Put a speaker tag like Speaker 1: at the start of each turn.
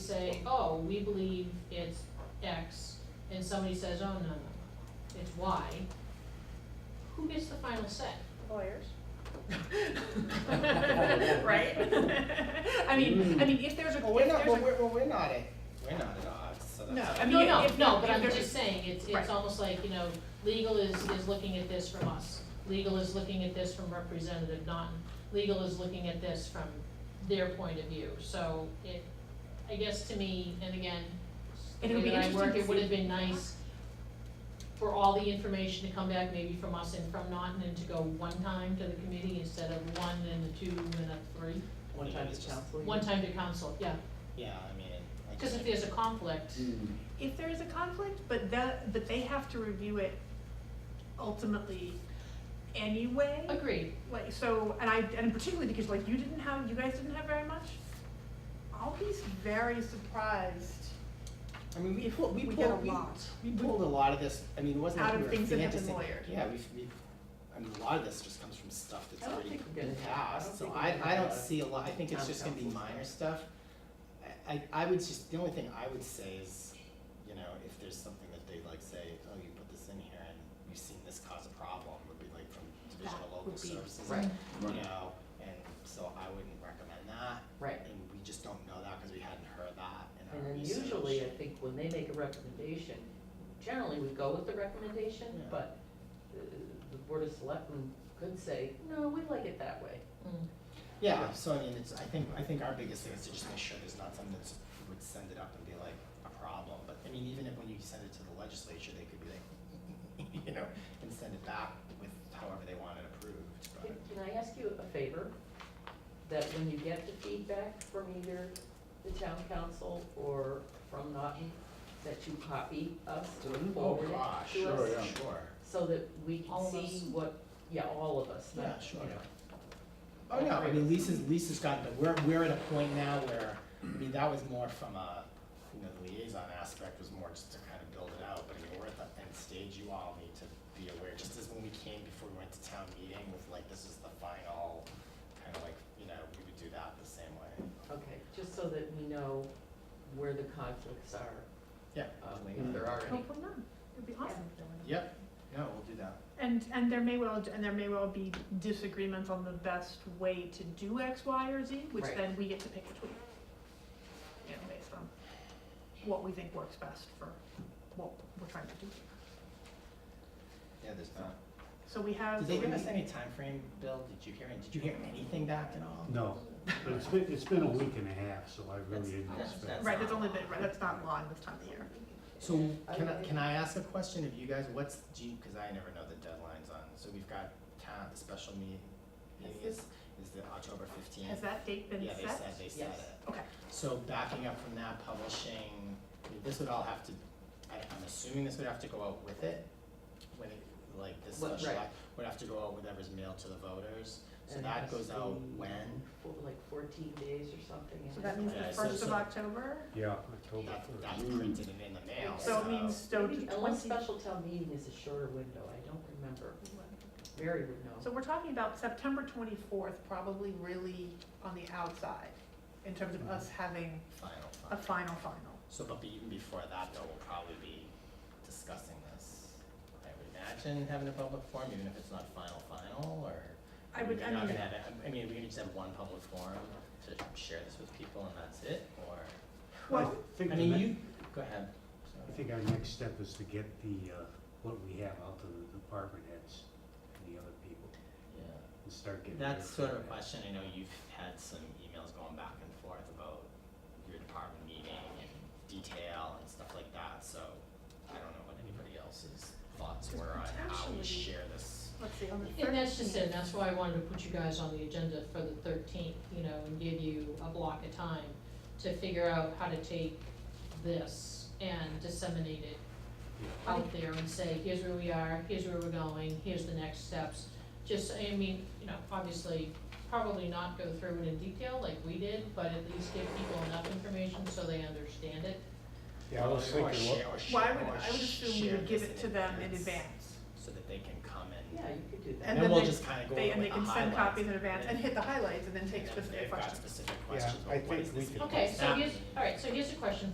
Speaker 1: say, oh, we believe it's X, and somebody says, oh, no, no, no, it's Y, who gets the final say?
Speaker 2: Lawyers.
Speaker 1: Right? I mean, I mean, if there's a,
Speaker 3: Well, we're
Speaker 1: if
Speaker 3: not, well,
Speaker 1: there's
Speaker 3: we're, well, we're not at, we're not at odds, so that's.
Speaker 2: No, I
Speaker 1: a,
Speaker 2: mean,
Speaker 1: no, no,
Speaker 2: if-
Speaker 1: no,
Speaker 2: if
Speaker 1: but I'm
Speaker 2: there's-
Speaker 1: just saying, it's,
Speaker 2: Right.
Speaker 1: it's almost like, you know, legal is, is looking at this from us. Legal is looking at this from Representative Naughton, legal is looking at this from their point of view, so it, I guess to me, and again, the
Speaker 2: It'll
Speaker 1: way
Speaker 2: be
Speaker 1: that I
Speaker 2: interesting
Speaker 1: work,
Speaker 2: to
Speaker 1: it would
Speaker 2: see.
Speaker 1: have been nice for all the information to come back maybe from us and from Naughton and to go one time to the committee instead of one and a two and a three.
Speaker 4: One time is council.
Speaker 1: One time to council, yeah,
Speaker 3: Yeah, I mean, I
Speaker 1: because if
Speaker 3: just,
Speaker 1: there's a conflict,
Speaker 3: Mm.
Speaker 2: If there is a conflict, but that, but they have to review it ultimately anyway.
Speaker 1: agreed,
Speaker 2: Like, so, and I, and particularly because like you didn't have, you guys didn't have very much, I'll be very surprised
Speaker 3: I mean, we, pulled- we
Speaker 2: we
Speaker 3: pulled,
Speaker 2: get a
Speaker 3: we,
Speaker 2: lot.
Speaker 3: we pulled a lot of this, I mean, it wasn't
Speaker 2: Out
Speaker 3: like
Speaker 2: of
Speaker 3: we were
Speaker 2: things that have been
Speaker 3: fantasy-
Speaker 2: lawyered.
Speaker 3: Yeah, we've, we've, I mean, a lot of this just comes from stuff
Speaker 4: I
Speaker 3: that's
Speaker 4: don't
Speaker 3: already
Speaker 4: think we're
Speaker 3: been
Speaker 4: gonna- I
Speaker 3: passed,
Speaker 4: don't
Speaker 3: so
Speaker 4: think we're
Speaker 3: I,
Speaker 4: gonna
Speaker 3: I
Speaker 4: have
Speaker 3: don't
Speaker 4: a
Speaker 3: see a lot, I think it's
Speaker 4: town
Speaker 3: just gonna be
Speaker 4: council.
Speaker 3: minor stuff. I, I, I would just, the only thing I would say is, you know, if there's something that they like say, oh, you put this in here and you've seen this cause a problem, would be like from Division
Speaker 1: That
Speaker 3: of Local
Speaker 1: would be-
Speaker 3: Services.
Speaker 4: Right,
Speaker 5: Right.
Speaker 3: You know, and so I wouldn't recommend that.
Speaker 4: right.
Speaker 3: and we just don't know that because we hadn't heard that
Speaker 4: And
Speaker 3: in our
Speaker 4: then
Speaker 3: research.
Speaker 4: usually, I think when they make a recommendation, generally we go with the recommendation,
Speaker 3: Yeah.
Speaker 4: but uh, the Board of Selectmen could say, no, we like it that way.
Speaker 1: Mm.
Speaker 3: Yeah, so I mean, it's, I think, I think our biggest thing is to just make sure there's not something that's, would send it up and be like a problem, but I mean, even if when you send it to the legislature, they could be like, you know, and send it back with however they want it approved,
Speaker 4: Can
Speaker 3: but,
Speaker 4: can I ask you a favor? That when you get the feedback from either the town council or from Naughton, that you copy us or
Speaker 3: oh
Speaker 4: forward it to us?
Speaker 3: gosh, sure,
Speaker 5: yeah.
Speaker 3: sure,
Speaker 4: So that we
Speaker 1: All
Speaker 4: can
Speaker 1: of us.
Speaker 4: see what, yeah, all of us,
Speaker 3: yeah,
Speaker 4: not,
Speaker 3: sure.
Speaker 4: you know.
Speaker 3: Oh, no, I mean, Lisa's, Lisa's gotten, to- we're, we're at a point now where, I mean, that was more from a, you know, the liaison aspect was more just to kind of build it out, but I mean, we're at the end stage, you all need to be aware, just as when we came before we went to town meeting with like, this is the final, kind of like, you know, we would do that the same way.
Speaker 4: Okay, just so that we know where the conflicts are,
Speaker 3: Yeah,
Speaker 4: um, if
Speaker 3: definitely.
Speaker 4: there are any.
Speaker 2: Hopefully not. It'd be awesome.
Speaker 3: yep, no, we'll do that.
Speaker 2: And, and there may well, and there may well be disagreements on the best way to do X, Y, or Z, which
Speaker 4: Right.
Speaker 2: then we get to pick between. You know, based on what we think works best for what we're trying to do.
Speaker 3: Yeah, there's not.
Speaker 2: So we have.
Speaker 3: Did they give us any timeframe, Bill, did you hear, any- did you hear anything back at all?
Speaker 5: No, but it's been, it's been a week and a half, so I really didn't
Speaker 3: That's-
Speaker 5: expect.
Speaker 2: Right, that's only been, right, that's not long this time of year.
Speaker 3: So can I, can I ask a question of you guys? What's, do you, cause I never know the deadlines on, so we've got town, the special meeting is, is the October fifteenth?
Speaker 2: Has that date been
Speaker 3: Yeah, they said,
Speaker 2: set?
Speaker 3: they said
Speaker 4: Yes.
Speaker 3: it.
Speaker 2: Okay.
Speaker 3: So backing up from that, publishing, this would all have to, I, I'm assuming this would have to go out with it? When it, like this
Speaker 4: What-
Speaker 3: special
Speaker 4: right.
Speaker 3: act, would have to go out with whatever's mailed to the voters? So
Speaker 4: And
Speaker 3: that
Speaker 4: has
Speaker 3: goes
Speaker 4: to
Speaker 3: out
Speaker 4: be
Speaker 3: when?
Speaker 4: for Like fourteen days or something.
Speaker 2: So that means
Speaker 3: Yeah,
Speaker 2: the
Speaker 3: so-
Speaker 2: first of
Speaker 3: so-
Speaker 2: October,
Speaker 5: Yeah, October
Speaker 3: That, that's
Speaker 5: first.
Speaker 3: printed and in the mail, so.
Speaker 2: so it means, so
Speaker 4: Maybe- Unless
Speaker 2: twenty.
Speaker 4: special town meeting is a shorter window, I don't remember. Mary would know.
Speaker 2: So we're talking about September twenty-fourth, probably really on the outside, in terms
Speaker 3: Mm-hmm.
Speaker 2: of us having
Speaker 3: Final,
Speaker 2: a final
Speaker 3: final.
Speaker 2: final.
Speaker 3: So, but be- even before that, though, we'll probably be discussing this. I would imagine having a public forum, even if it's not final, final, or.
Speaker 2: I would,
Speaker 3: We're
Speaker 2: I
Speaker 3: not
Speaker 2: mean,
Speaker 3: gonna have it- I mean, we could just have one public forum to share this with people and that's it, or,
Speaker 5: I
Speaker 2: well,
Speaker 5: think,
Speaker 3: I
Speaker 5: the
Speaker 3: mean,
Speaker 5: ne-
Speaker 3: you, go ahead. Sorry.
Speaker 5: I think our next step is to get the, uh, what we have out to the department heads and the other people
Speaker 3: Yeah.
Speaker 5: and start getting.
Speaker 3: That's
Speaker 5: their
Speaker 3: sort of a
Speaker 5: feedback.
Speaker 3: question, I know you've had some emails going back and forth about your department meeting and detail and stuff like that, so I don't know what anybody else's thoughts were on how
Speaker 2: Potentially.
Speaker 3: we share this.
Speaker 2: let's see, on the thirteenth.
Speaker 1: And that's just it, and that's why I wanted to put you guys on the agenda for the thirteenth, you know, and give you a block of time to figure out how to take this and disseminate it out there and say, here's where we are, here's where we're going, here's the next steps. Just, I mean, you know, obviously, probably not go through it in detail like we did, but at least give people enough information so they understand it.
Speaker 5: Yeah, I was
Speaker 3: Or
Speaker 5: thinking, what-
Speaker 3: share- or
Speaker 2: Well, I
Speaker 3: share-
Speaker 2: would,
Speaker 3: or
Speaker 2: I would assume we
Speaker 3: share
Speaker 2: would give
Speaker 3: this
Speaker 2: it to them in
Speaker 3: advance
Speaker 2: advance.
Speaker 3: oh, So that they can come and
Speaker 4: Yeah, you could do that.
Speaker 2: And
Speaker 3: And then
Speaker 2: then
Speaker 3: we'll
Speaker 2: they-
Speaker 3: just kind of go over
Speaker 2: They, and they
Speaker 3: with the
Speaker 2: can send
Speaker 3: highlights.
Speaker 2: copies in advance and hit the highlights and then
Speaker 3: And
Speaker 2: take
Speaker 3: then
Speaker 2: specific
Speaker 3: they've got
Speaker 2: questions.
Speaker 3: specific
Speaker 5: Yeah,
Speaker 3: questions,
Speaker 5: I
Speaker 3: well, what
Speaker 5: think
Speaker 3: is
Speaker 5: we
Speaker 3: this?
Speaker 5: could-
Speaker 3: gonna
Speaker 1: Okay, so
Speaker 3: happen?
Speaker 1: here's, all right, so here's a question